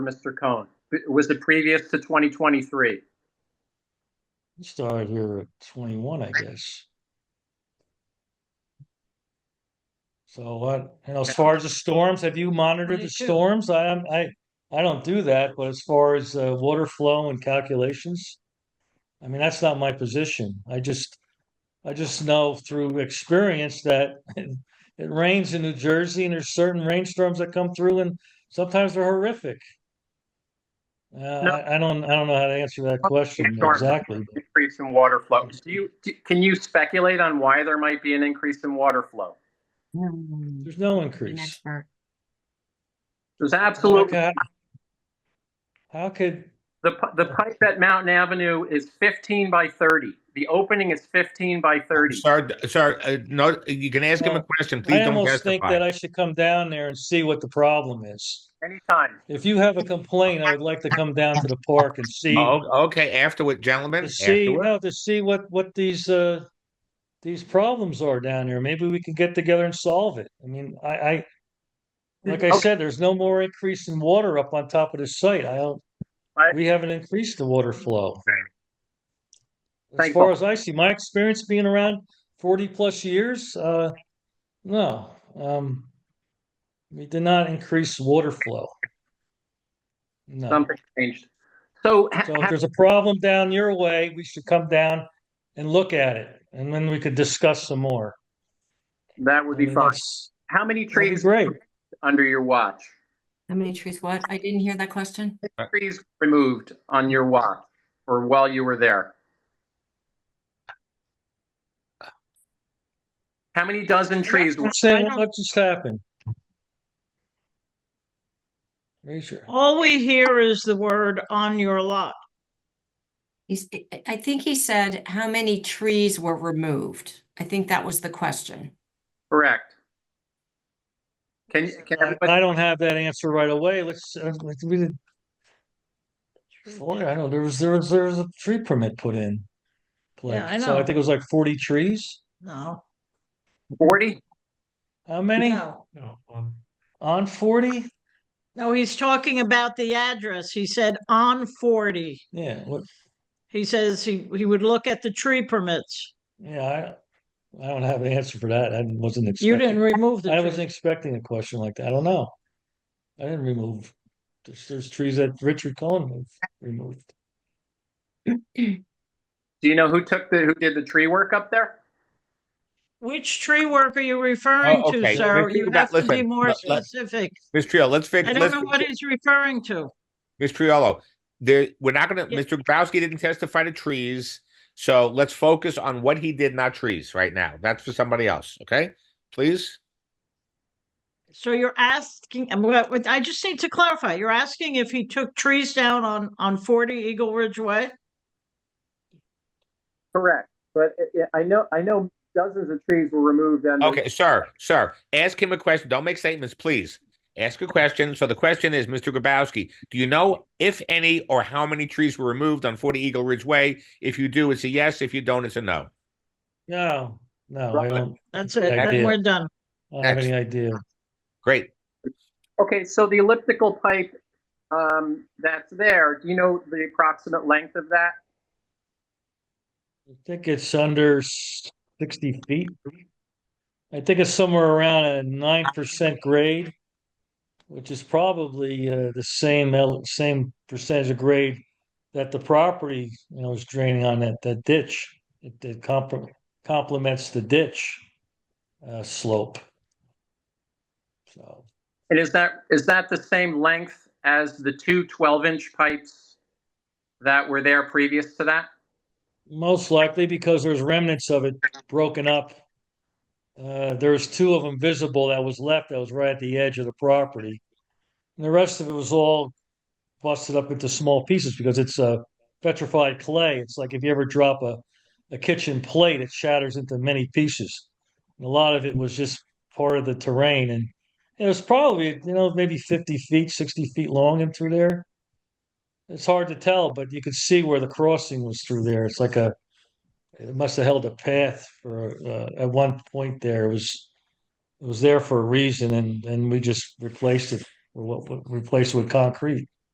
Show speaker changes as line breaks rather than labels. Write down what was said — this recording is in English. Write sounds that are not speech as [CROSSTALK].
Mr. Cohen. Was it previous to 2023?
We Started here at twenty-one, I guess. So what, you know, as far as the storms, have you monitored the
22.
storms? I, am- I, I don't do that, but as far as, uh, water flow and calculations. I mean, that's not my position. I just, I just know through experience that [LAUGHS] it rains in New Jersey and there's certain rainstorms that come through and sometimes they're horrific. Uh, I, I don't, I don't know how to answer that question
Sure.
exactly. but-
Increase in water flow. Do you, do- can you speculate on why there might be an increase in water flow?
Hmm. An
There's no increase.
expert.
There's
How
absolutely,
could, how could,
the, pi- the pipe at Mountain Avenue is 15 by 30. The opening is 15 by 30.
Sir, d- sir, uh, no, you can ask him a
Well,
question. Please
I
don't
almost think that
testify.
I should come down there and see what the problem is.
Anytime.
If you have a complaint, I would like to come down to the park and see,
Oh, okay, afterward, gentlemen.
to see,
afterward.
no, to see what, what these, uh, these problems are down here. Maybe we can get together and solve it. I mean, I, I, like I
Okay.
said, there's no more increase in water up on top of the site. I don't,
I-
we haven't increased the water flow. As
Thank
far
you.
as I see, my experience being around forty plus years, uh, no, um, we did not increase water flow. No,
Something changed. So ha- [LAUGHS]
so if
ha-
there's a problem down your way, we should come down and look at it, and then we could discuss some more.
that would
I
be
mean,
fine.
that's-
How many
that'd be
trees
Great,
under your watch?
How many trees? What? I didn't hear that question.
Trees removed on your watch or while you were there? How many dozen trees? were-
let's say, what just happened? Raise your,
All we hear is the word on your lot.
He's, I- I think he said how many trees were removed. I think that was the question.
Correct. Can, can
I
everybody,
I don't have that answer right away, let's, uh, let's- we did. Well, I know, there was, there was, there was a tree permit put in. place.
Yeah, I
So I
know.
think it was like forty trees.
No.
40?
How many?
No,
On forty?
No, he's talking about the address. He said on forty.
Yeah, what,
He says he, he would look at the tree permits.
yeah, I, I don't have an answer for that. I wasn't
You didn't
expecting,
remove
I
the
wasn't
tree.
expecting a question like that. I don't know. I didn't remove, there's, there's trees that Richard Cohen removed.
Do you know who took the, who did the tree work up there?
Which tree work are you referring
Oh,
to,
okay.
sir?
Listen,
You
that-
have to be
listen,
more
let- let-
specific.
Ms. Triolo, let's fix,
I don't
let's,
know what he's referring to.
Ms. Triolo, there, we're not gonna,
Yeah.
Mr. Grabowski didn't testify to trees. So let's focus on what he did, not trees, right now. That's for somebody else, okay? Please?
So you're asking, I'm gonna- I just need to clarify. You're asking if he took trees down on, on forty Eagle Ridge Way?
Correct, but I know, I know dozens of trees were removed and.
Okay, sir, sir, ask him a question. Don't make statements, please. Ask a question. So the question is, Mr. Grabowski, do you know if any or how many trees were removed on 40 Eagle Ridge Way? If you do, it's a yes. If you don't, it's a no.
No, no, I
Right.
don't,
That's it.
Yeah, I
Then
did.
we're done.
I don't have any
Excellent.
idea.
Great.
Okay, so the elliptical pipe, um, that's there, do you know the approximate length of that?
I think it's under s- sixty feet. I think it's somewhere around a nine percent grade, which is probably uh, the same el- same percentage of grade that the property you know is draining on that that ditch. It, it compr- complements the ditch uh, slope. So
And is that, is that the same length as the two 12-inch pipes that were there previous to that?
Most likely because there's remnants of it broken up. Uh, there's two of them visible that was left that was right at the edge of the property. And the rest of it was all busted up into small pieces because it's uh, petrified clay. It's like if you ever drop a, a kitchen plate, it shatters into many pieces. And a lot of it was just part of the terrain. And it was probably, you know, maybe 50 feet, 60 feet long in through there. It's hard to tell, but you could see where the crossing was through there. It's like a, it must have held a path for, uh, at one point there. It was, it was there for a reason and, and we just replaced it, or what, what- replaced it with concrete.